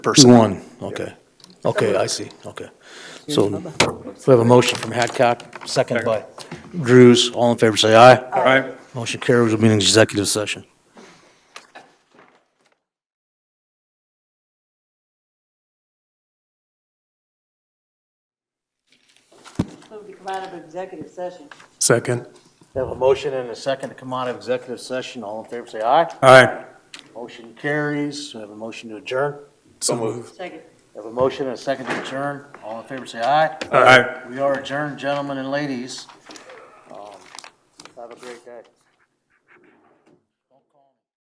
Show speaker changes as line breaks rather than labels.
person.
One, okay. Okay, I see, okay. So we have a motion from Hadcock, second by Drews. All in favor, say aye. Aye. Motion carries, we'll be in executive session.
Move to come out of executive session.
Second.
We have a motion and a second to come out of executive session. All in favor, say aye.
Aye.
Motion carries. We have a motion to adjourn.
So moved.
Second.
We have a motion and a second to adjourn. All in favor, say aye.
Aye.
We are adjourned, gentlemen and ladies. Um,